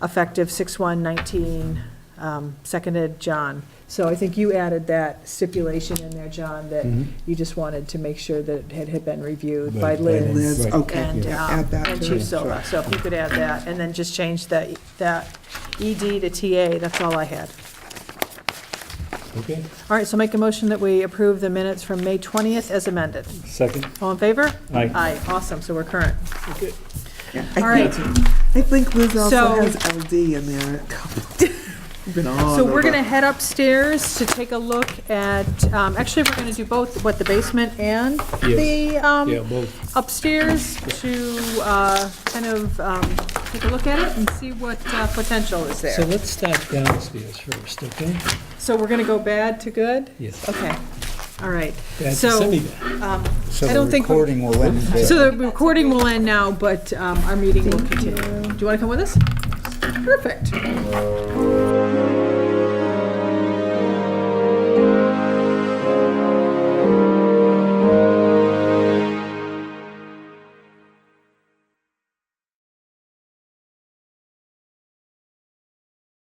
effective 6/1/19, um, seconded John. So I think you added that stipulation in there, John, that Mm. Mm-hmm. you just wanted to make sure that it had- had been reviewed by By- by Liz. Liz, Liz, Right. okay, And, yeah, um, add that and to Chief it. Silva, so if you could add that, and then just change that, that ED to TA, that's all I had. Okay, All right, so make a motion that we approve the minutes from May 20th as amended. second. All in favor? Aye. Aye, awesome, so we're current. Yeah, All I right, think, I think Liz also So- has LD in there. Been all Oh, so we're over. going to head upstairs to take a look at, um, actually, we're going to do both, what, the basement and the Yeah, um, both. upstairs to uh, kind of um, take a look at it and see what uh, potential is So there. let's start downstairs first, okay? So we're going to go bad to good? Yes. Okay, all right. Bad to So semi- um, So I the don't think, we- recording will end there. so the recording will end now, but um, our meeting will continue. Do you want to come with us? Perfect.